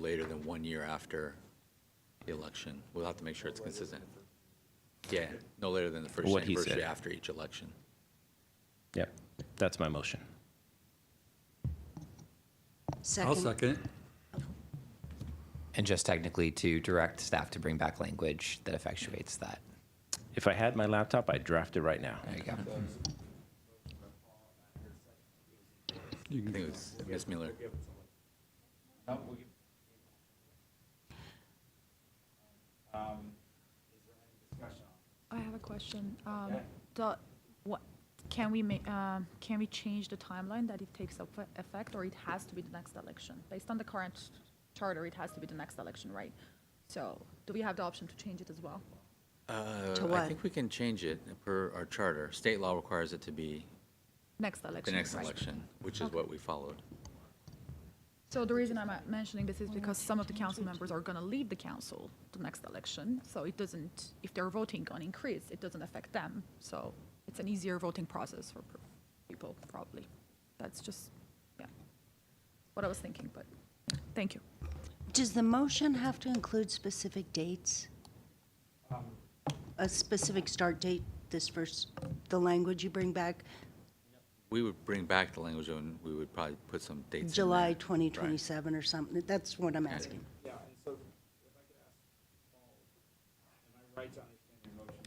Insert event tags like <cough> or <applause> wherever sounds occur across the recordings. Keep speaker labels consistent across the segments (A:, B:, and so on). A: later than one year after the election. We'll have to make sure it's consistent. Yeah, no later than the first
B: What he
A: anniversary
B: said.
A: after each election.
B: Yep, that's my motion.
C: I'll
D: Second.
C: second it.
E: And just technically to direct staff to bring back language that effectuates that.
B: If I had my laptop, I'd draft it right now.
E: There you go.
C: You
A: I
C: can-
A: think it was Ms. Mueller.
F: I have a question. Um, the, what, can we make, um, can we change the timeline that it takes effe- effect, or it has to be the next election? Based on the current charter, it has to be the next election, right? So, do we have the option to change it as well?
A: Uh, I
D: what?
A: think we can change it per our charter. State law requires it to be
F: Next
A: the
F: election,
A: next
F: right.
A: election, which is what we followed.
F: So the reason I'm uh, mentioning this is because some of the council members are gonna leave the council the next election, so it doesn't, if they're voting on increase, it doesn't affect them. So it's an easier voting process for per- people, probably. That's just, yeah, what I was thinking, but, thank you.
D: Does the motion have to include specific dates?
A: Um,
D: A specific start date, this first, the language you bring back,
A: We would bring back the language and we would probably put some dates in there.
D: July
A: Right.
D: 2027 or something? That's what I'm
A: Okay.
D: asking.
G: Yeah, and so if I could ask Paul, am I right to understand your motion to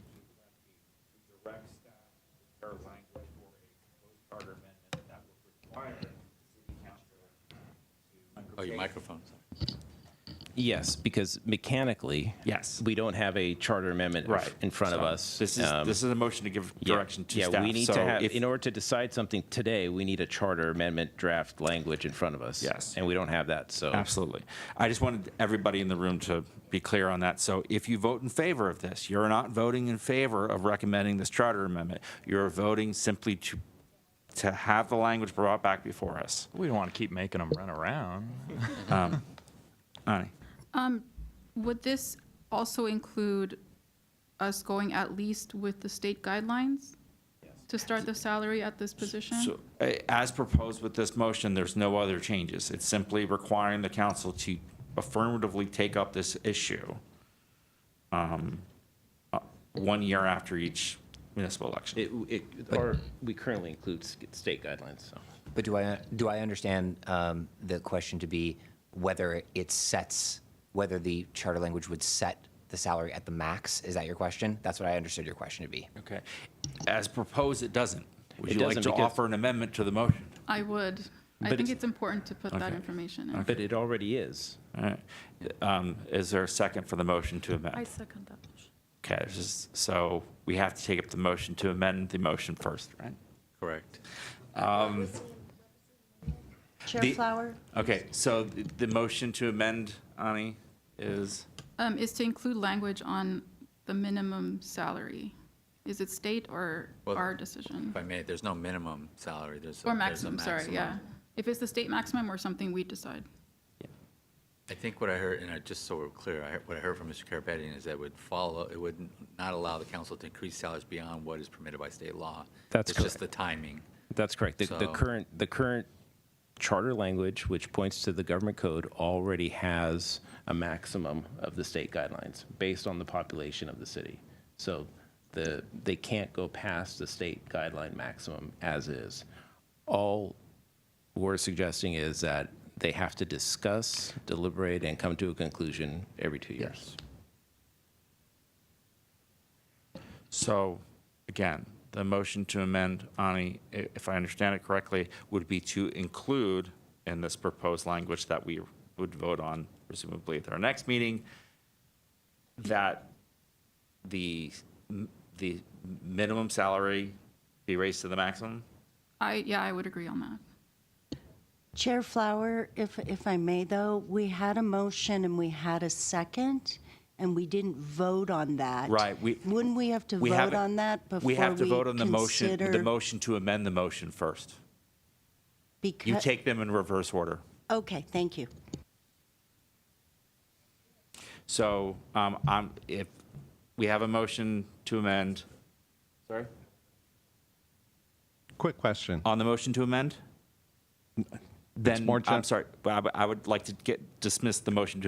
G: direct to direct staff to prepare language for a proposed charter amendment that would require the city council to.
A: Oh, your microphone, sorry.
B: Yes, because mechanically,
H: Yes.
B: we don't have a charter amendment
H: Right.
B: in front of
H: So
B: us.
H: This is,
B: Um,
H: this is a motion to give
B: yeah,
H: direction to
B: yeah,
H: staff.
B: we need to
H: So
B: have
H: if-
B: in order to decide something today. We need a charter amendment draft language in front of us.
H: Yes.
B: and we don't have that. So
H: Absolutely. I just wanted everybody in the room to be clear on that. So if you vote in favor of this, you're not voting in favor of recommending this charter amendment. You're voting simply to, to have the language brought back before us. Um,
I: We don't want to keep making them run
H: <laughs>
I: around.
H: Ani?
J: Would this also include us going at least with the state guidelines? To start the salary at this position?
H: So, a- as proposed with this motion, there's no other changes. It's simply requiring the council to affirmatively take up this issue um, uh, one year after each municipal election.
B: it, it or we currently include s- state guidelines. So
E: But do I, do I understand um, the question to be whether it sets, whether the charter language would set the salary at the max? Is that your question? That's what I understood your question to be.
H: Okay. As proposed, it doesn't. Would
B: It
H: you like
B: doesn't
H: to
B: because-
H: offer an amendment to the motion?
J: I would. I
B: But
J: think
B: it's-
J: it's important to put that
H: Okay.
J: information in.
B: but it already is.
H: All right. Um, Is there a second for the motion to amend?
F: I second that motion.
H: Okay, this is- so we have to take up the motion to amend the motion first, right?
A: Correct.
D: Chair
H: The-
D: Flower?
H: Okay, so the the motion to amend, Ani, is?
J: Um, is to include language on the minimum salary. Is it state or
A: Well,
J: our decision?
A: If I may, there's no minimum salary, there's. a-
J: Or
A: there's a
J: maximum, sorry,
A: maximum.
J: yeah. If it's the state maximum or something we decide.
A: I think what I heard, and I, just so we're clear, I, heard- what I heard from Mr. Karapetian is that it would follow, it would not allow the council to increase salaries beyond what is permitted by state law.
B: That's
A: It's just the timing.
B: That's correct. The, the
A: So-
B: current the current charter language, which points to the government code, already has a maximum of the state guidelines based on the population of the city. So the they can't go past the state guideline maximum as is. All we're suggesting is that they have to discuss, deliberate, and come to a conclusion every two years.
H: So, again, the motion to amend, Ani, i- if I understand it correctly, would be to include in this proposed language that we would vote on presumably at our next meeting, that the, m- the minimum salary be raised to the maximum?
J: I, yeah, I would agree on that.
D: Chair Flower, if, if I may though, we had a motion and we had a second, and we didn't vote on that.
H: Right, we-
D: Wouldn't we have to
H: We
D: vote
H: haven't-
D: on that before we
H: We have to vote on the motion, the
D: consider-
H: motion to amend the motion first. You
D: Becau-
H: take them in reverse order.
D: Okay, thank you.
H: So, um, I'm, if, we have a motion to amend. Sorry?
K: Quick question.
H: On the motion to amend? Then,
B: more
H: I'm
B: gen-
H: sorry, but I would- I would like to get, dismiss the motion to